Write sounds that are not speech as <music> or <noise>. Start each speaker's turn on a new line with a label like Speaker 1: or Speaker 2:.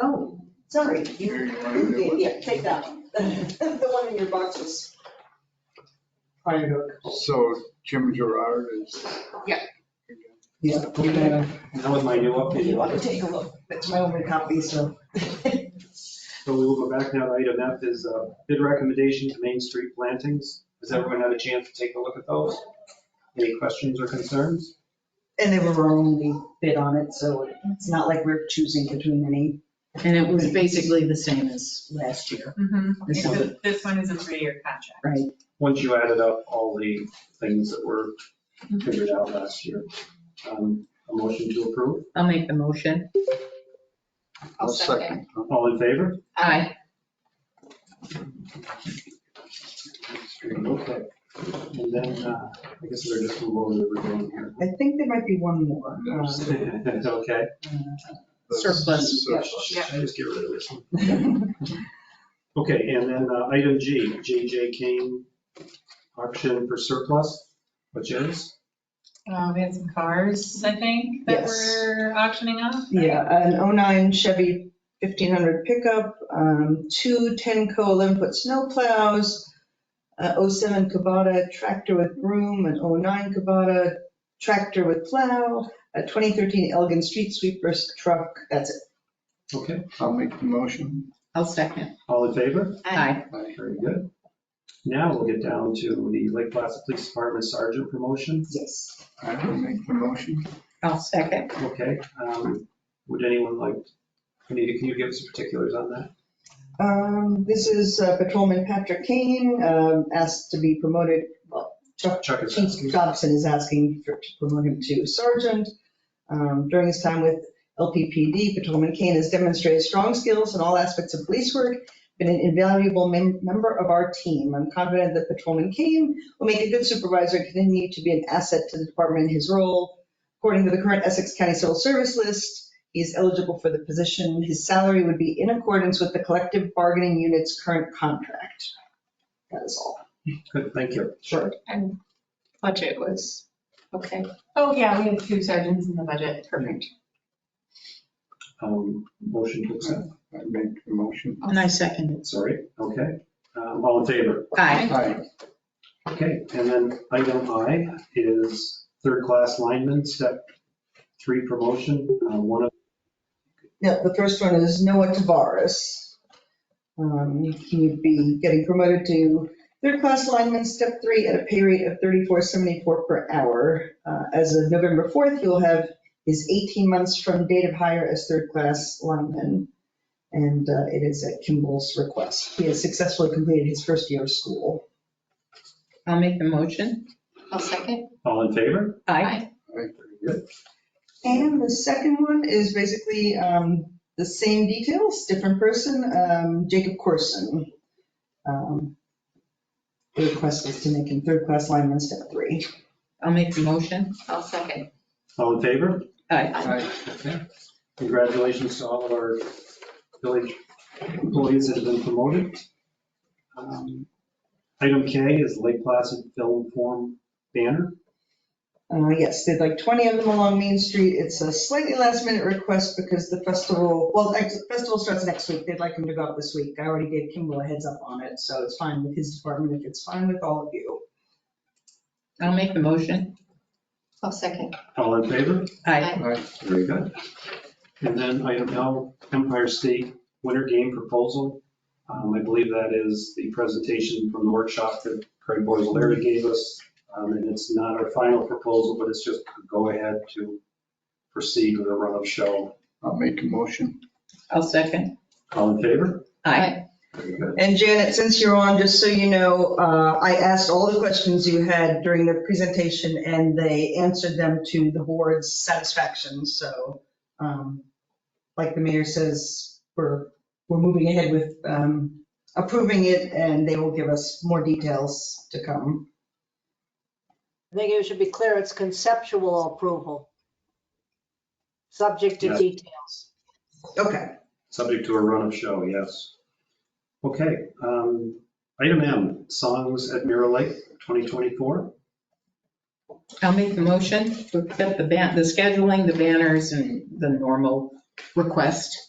Speaker 1: Oh, Sorry, you,
Speaker 2: Here, you wanna
Speaker 1: you
Speaker 2: do
Speaker 1: did,
Speaker 2: it?
Speaker 1: yeah, take that one. <laughs> The one in your box was,
Speaker 3: Fire hook.
Speaker 2: So Jim Gerard is.
Speaker 1: Yeah.
Speaker 3: Yeah, put that on.
Speaker 4: That was my new
Speaker 1: you
Speaker 4: update.
Speaker 1: want to take a look, that's uh, my only copy, so. <laughs>
Speaker 4: So we will go back now to item F is uh, bid recommendation to Main Street plantings. Has everyone had a chance to take a look at those? Any questions or concerns?
Speaker 1: And they were our only bid on it, so it's not like we're choosing between any
Speaker 5: And it was basically the same as last year.
Speaker 6: Mhm.
Speaker 5: This
Speaker 6: Because
Speaker 5: one.
Speaker 6: it- This one is a three-year contract.
Speaker 4: Once you added up all the things that were figured out last year, um, a motion to approve.
Speaker 5: I'll make the motion.
Speaker 2: I'll second.
Speaker 4: All in favor?
Speaker 5: Aye.
Speaker 4: Okay. And then, uh, I guess we're just move over to everything here. <laughs>
Speaker 1: I think there might be one more. uh,
Speaker 4: It's okay.
Speaker 5: Surplus.
Speaker 2: Surplus.
Speaker 4: I just get rid of this one.
Speaker 1: <laughs> uh,
Speaker 4: Okay, and then uh, item G, JJ Kane auction for surplus, which is?
Speaker 6: Uh, we had some cars, I think, that
Speaker 1: Yes.
Speaker 6: we're auctioning off. right?
Speaker 1: Yeah, an 09 Chevy 1500 pickup, um, two 10-co Olympic snowplows, a 07 Kubota tractor with broom, an 09 Kubota tractor with plow, a 2013 Elgin Street Sweeper truck, that's it.
Speaker 4: Okay,
Speaker 2: I'll make the motion.
Speaker 5: I'll second.
Speaker 4: all in favor?
Speaker 5: Aye.
Speaker 4: Very good. Now we'll get down to the Lake Placid Police Department Sergeant promotion.
Speaker 1: Yes.
Speaker 2: I will make the motion.
Speaker 5: I'll second.
Speaker 4: Okay, um, would anyone like, Anita, can you give us particulars on that?
Speaker 1: Um, This is uh, Patrolman Patrick Kane, um, asked to be promoted, well, Chuck
Speaker 4: Chuck is
Speaker 1: Chief
Speaker 4: asking.
Speaker 1: Dobson is asking for- to promote him to sergeant. Um, During his time with LPPD, Patrolman Kane has demonstrated strong skills in all aspects of police work, been an invaluable mem- member of our team. I'm confident that Patrolman Kane will make a good supervisor, and continue to be an asset to the department in his role. According to the current Essex County Civil Service list, he is eligible for the position. His salary would be in accordance with the collective bargaining unit's current contract. That is all.
Speaker 4: Good, thank you.
Speaker 1: Sure.
Speaker 6: And budget was,
Speaker 5: Okay.
Speaker 6: oh yeah, we had two sergeants in the budget. Perfect.
Speaker 4: Um, motion to accept,
Speaker 2: I make the motion.
Speaker 5: And I second
Speaker 4: sorry, okay. Um, all in favor?
Speaker 5: it. Aye.
Speaker 2: Aye.
Speaker 4: Okay, and then item I is third-class lineman, step three promotion, uh, one of,
Speaker 1: No, the first one is Noah Tavares. Um, He would be getting promoted to third-class lineman, step three, at a pay rate of $34.74 per hour. Uh, As of November 4th, he'll have his 18 months from date of hire as third-class lineman. And uh, it is at Kimball's request. He has successfully completed his first year of school.
Speaker 5: I'll make the motion.
Speaker 6: I'll second.
Speaker 4: all in favor?
Speaker 5: Aye.
Speaker 2: Aye.
Speaker 1: And the second one is basically um, the same details, different person, um, Jacob Corson. Um, The request is to make him third-class lineman, step three.
Speaker 5: I'll make the motion.
Speaker 6: I'll second.
Speaker 4: All in favor?
Speaker 5: Aye.
Speaker 2: Aye.
Speaker 4: Okay. Congratulations to all of our village employees that have been promoted. Um, Item K is Lake Placid Film Form banner.
Speaker 1: Uh, Yes, there's like 20 of them along Main Street. It's a slightly last-minute request because the festival, well, actually, the festival starts next week. They'd like him to go up this week. I already gave Kimball a heads up on it, so it's fine with his department if it's fine with all of you.
Speaker 5: I'll make the motion.
Speaker 6: I'll second.
Speaker 4: All in favor?
Speaker 5: Aye.
Speaker 2: Aye.
Speaker 4: Very good. And then item L, Empire State Winter Game Proposal. Um, I believe that is the presentation from the workshop that Craig Boiseleri gave us. Um, and it's not our final proposal, but it's just a go-ahead to proceed with a run of show.
Speaker 2: I'll make the motion.
Speaker 5: I'll second.
Speaker 4: All in favor?
Speaker 5: Aye.
Speaker 4: Very good.
Speaker 1: And Janet, since you're on, just so you know, uh, I asked all the questions you had during the presentation, and they answered them to the board's satisfaction. So, um, like the mayor says, we're, we're moving ahead with um, approving it, and they will give us more details to come.
Speaker 7: I think it should be clear, it's conceptual approval. Subject
Speaker 4: Yeah.
Speaker 7: to details.
Speaker 1: Okay.
Speaker 4: Subject to a run of show, yes. Okay, um, item M, Songs at Mirror Lake 2024.
Speaker 5: I'll make the motion to accept the ban, the scheduling, the banners and the normal request.